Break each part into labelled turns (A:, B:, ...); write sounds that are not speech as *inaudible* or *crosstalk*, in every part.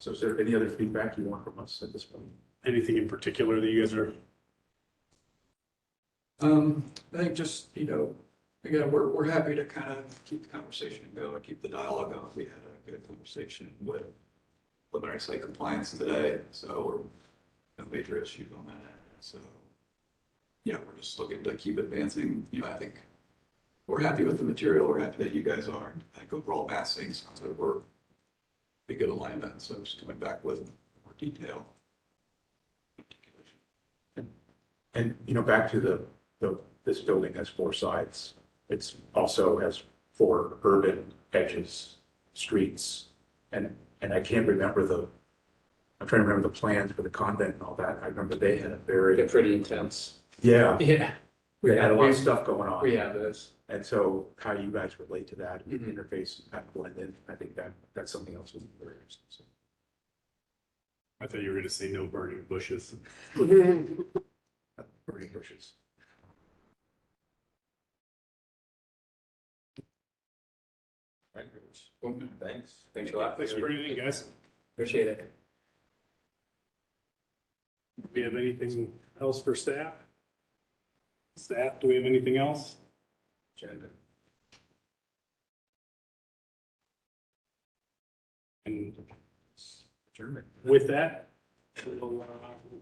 A: So is there any other feedback you want from us at this point?
B: Anything in particular that you guys are,
C: Um, I think just, you know, again, we're, we're happy to kind of keep the conversation going, keep the dialogue going. We had a good conversation with preliminary site compliance today, so we're, no major issues on that. So, yeah, we're just looking to keep advancing, you know, I think we're happy with the material, we're happy that you guys are. I think overall massing sounds like we're a good alignment, so just coming back with more detail.
A: And, you know, back to the, the, this building has four sides. It's also has four urban edges, streets. And, and I can't remember the, I'm trying to remember the plans for the convent and all that. I remember they had a
D: They're
A: very,
D: pretty intense.
A: yeah,
D: Yeah.
A: they had a lot of stuff going on.
D: We have those.
A: And so how you guys relate to that and
D: Mhm.
A: interface, and kind of blend in, I think that, that's something else. that's very interesting. So-
B: I thought you were gonna say no burning bushes.
A: Burning bushes.
D: Thanks. Thanks a lot.
B: Thanks for anything, guys.
D: Appreciate it.
B: Do we have anything else for staff? Staff, do we have anything else? And
A: German.
B: with that, we'll uh,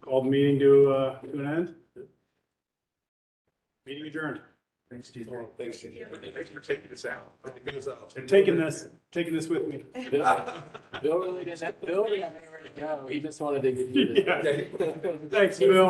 B: call the meeting to, uh, to an end. Meeting adjourned.
A: Thanks, Steve.
B: Thanks.
A: Thanks for taking us out.
B: And taking this, taking this with me. *laughs*
D: Bill Bill really didn't, Bill didn't have anywhere to go. He just wanted to get you. to-
B: *laughs* Thanks, Bill.